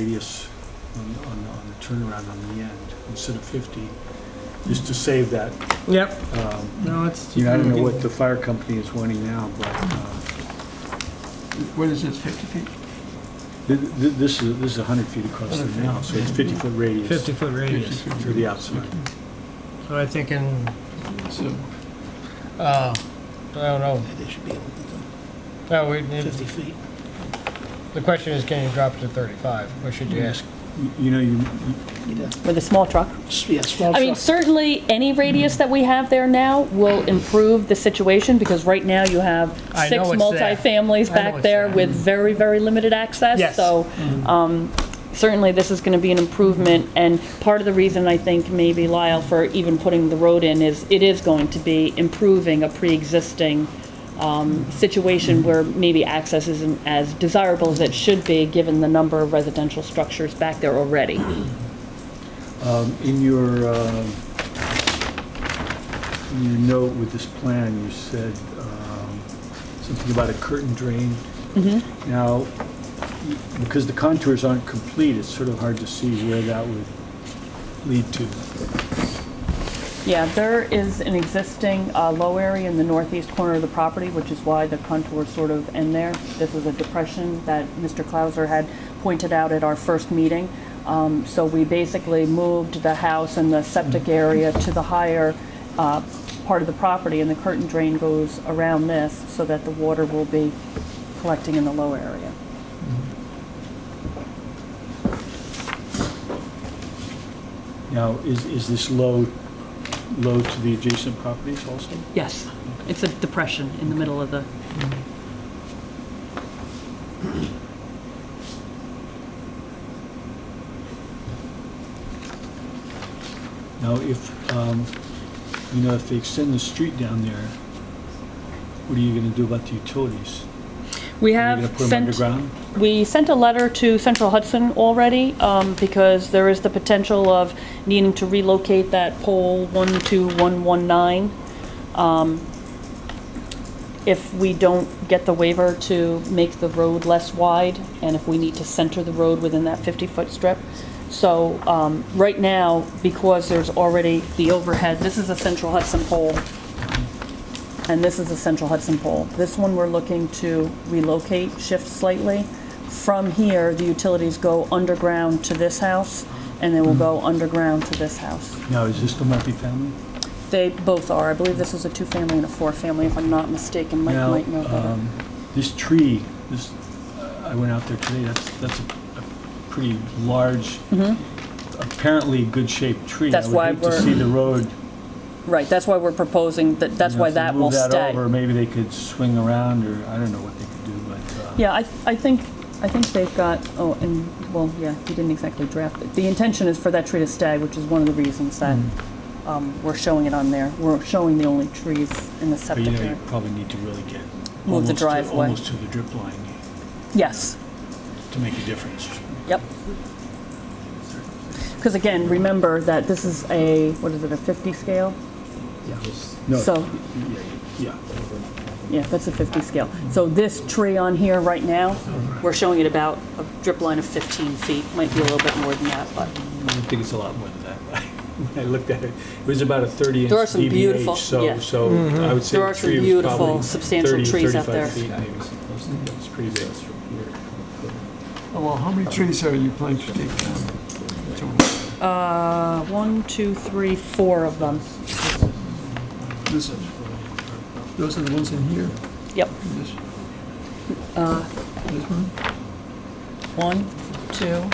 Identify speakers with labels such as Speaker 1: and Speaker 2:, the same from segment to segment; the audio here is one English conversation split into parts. Speaker 1: radius on, on, on the turnaround on the end instead of 50, just to save that.
Speaker 2: Yep,
Speaker 1: um,
Speaker 2: no, it's.
Speaker 1: You know, I don't know what the fire company is wanting now, but uh,
Speaker 3: What is this, 50 feet?
Speaker 1: thi- thi- this is, this is 100 feet across there now, so it's 50-foot radius
Speaker 2: Fifty-foot radius,
Speaker 1: to the outside.
Speaker 2: so I think in,
Speaker 3: So,
Speaker 2: uh, I don't know,
Speaker 4: They should be able to
Speaker 2: well, we,
Speaker 4: do
Speaker 2: need-
Speaker 4: 50 feet.
Speaker 2: the question is, can you drop it to thirty-five, or should you ask?
Speaker 1: You- You know, you,
Speaker 4: You'd have-
Speaker 5: With a small truck?
Speaker 4: s- Yeah, small
Speaker 5: I mean,
Speaker 4: truck.
Speaker 5: certainly, any radius that we have there now will improve the situation, because right now you have
Speaker 2: I
Speaker 5: six
Speaker 2: know it's there.
Speaker 5: multifamilies
Speaker 2: I know
Speaker 5: back
Speaker 2: it's
Speaker 5: there
Speaker 2: there.
Speaker 5: with very, very limited access.
Speaker 2: Yes. Mm-hmm.
Speaker 5: So um, certainly, this is going to be an improvement, and part of the reason I think maybe Lyle for even putting the road in is it is going to be improving a pre-existing um, situation where maybe access isn't as desirable as it should be, given the number of residential structures back there already.
Speaker 1: um, in your, um, in your note with this plan, you said um, something about a curtain drain. Now, because the contours aren't complete, it's sort of hard to see where that would lead to.
Speaker 5: Yeah, there is an existing uh, low area in the northeast corner of the property, which is why the contours sort of end there. This is a depression that Mr. Clauser had pointed out at our first meeting. Um, So we basically moved the house and the septic area to the higher uh, part of the property, and the curtain drain goes around this so that the water will be collecting in the low area.
Speaker 1: Now, is, is this low, low to the adjacent properties also?
Speaker 5: Yes, it's a depression in the middle of the
Speaker 1: Now, if, um, you know, if they extend the street down there, what are you gonna do about the utilities?
Speaker 5: We
Speaker 1: Are you
Speaker 5: have
Speaker 1: gonna put them
Speaker 5: sent,
Speaker 1: underground?
Speaker 5: we sent a letter to Central Hudson already, um, because there is the potential of needing to relocate that pole 12119. um, If we don't get the waiver to make the road less wide, and if we need to center the road within that 50-foot strip. So, um, right now, because there's already the overhead, this is a Central Hudson pole, and this is the Central Hudson pole. This one we're looking to relocate, shift slightly. From here, the utilities go underground to this house, and they will go
Speaker 1: Mm-hmm.
Speaker 5: underground to this house.
Speaker 1: Now, is this the multifamily?
Speaker 5: They both are. I believe this is a two-family and a four-family, if I'm not mistaken. Mike
Speaker 1: Now,
Speaker 5: might know better.
Speaker 1: um, This tree, this, I went out there today, that's, that's a a pretty large, apparently good-shaped tree.
Speaker 5: Mm-hmm. That's why
Speaker 1: I would hate
Speaker 5: we're-
Speaker 1: to see the road.
Speaker 5: Right, that's why we're proposing, that. that's
Speaker 1: you know,
Speaker 5: why
Speaker 1: if they
Speaker 5: that will
Speaker 1: Move that
Speaker 5: stay.
Speaker 1: over, maybe they could swing around, or I don't know what they could do, but. uh,
Speaker 5: Yeah, I, I think, I think they've got, oh, and, well, yeah, he didn't exactly draft it. The intention is for that tree to stay, which is one of the reasons that
Speaker 1: Mm.
Speaker 5: um, we're showing it on there. We're showing the only trees in the
Speaker 1: But
Speaker 5: septic
Speaker 1: Oh, you know, you
Speaker 5: area.
Speaker 1: probably need to really get.
Speaker 5: the
Speaker 1: almost to-
Speaker 5: driveway.
Speaker 1: Almost to the drip line
Speaker 5: Yes,
Speaker 1: to make a difference.
Speaker 5: yep. Because again, remember that this is a, what is it, a 50 scale?
Speaker 1: No,
Speaker 5: So,
Speaker 1: yeah, yeah.
Speaker 5: yeah, that's a 50 scale. So this tree on here right now, we're showing it about a drip line of 15 feet, might be a little bit more than that, but.
Speaker 1: I think it's a lot more than that. When I looked at it, it was about a 30 inch
Speaker 5: There are some
Speaker 1: DBH,
Speaker 5: beautiful-
Speaker 1: so,
Speaker 5: yeah.
Speaker 1: so I would say
Speaker 5: There
Speaker 1: the
Speaker 5: are some
Speaker 1: tree was
Speaker 5: beautiful,
Speaker 1: probably
Speaker 5: substantial
Speaker 1: 30,
Speaker 5: trees out
Speaker 1: 35
Speaker 5: there.
Speaker 1: feet maybe. It's pretty big.
Speaker 3: oh, well, how many trees are you planning to take down? Total.
Speaker 5: Uh, one, two, three, four of them.
Speaker 3: This- Those are the ones in here?
Speaker 5: Yep.
Speaker 3: This This one?
Speaker 5: One, two,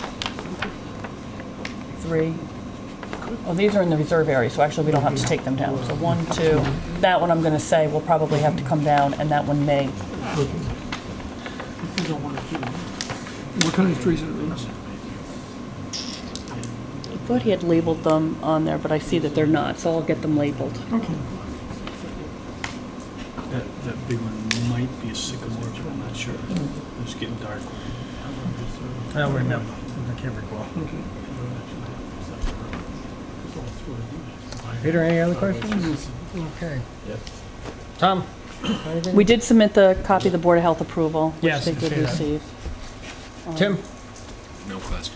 Speaker 5: three. Oh, these are in the reserve area, so actually we don't have to take them down. So one, two, that one I'm gonna say will probably have to come down, and that one may.
Speaker 3: You don't want to keep them. What kind of trees are those?
Speaker 5: I thought he had labeled them on there, but I see that they're not, so I'll get them labeled.
Speaker 3: Okay.
Speaker 1: That, that big one might be a sycamore, but I'm not sure. It's getting dark.
Speaker 2: I don't remember, I can't recall. Peter, any other questions? Okay. Tom? anything?
Speaker 5: We did submit the copy of the Board of Health approval, which
Speaker 2: Yes,
Speaker 5: they
Speaker 2: I
Speaker 5: did
Speaker 2: see that.
Speaker 5: receive.
Speaker 2: Tim?
Speaker 1: no question.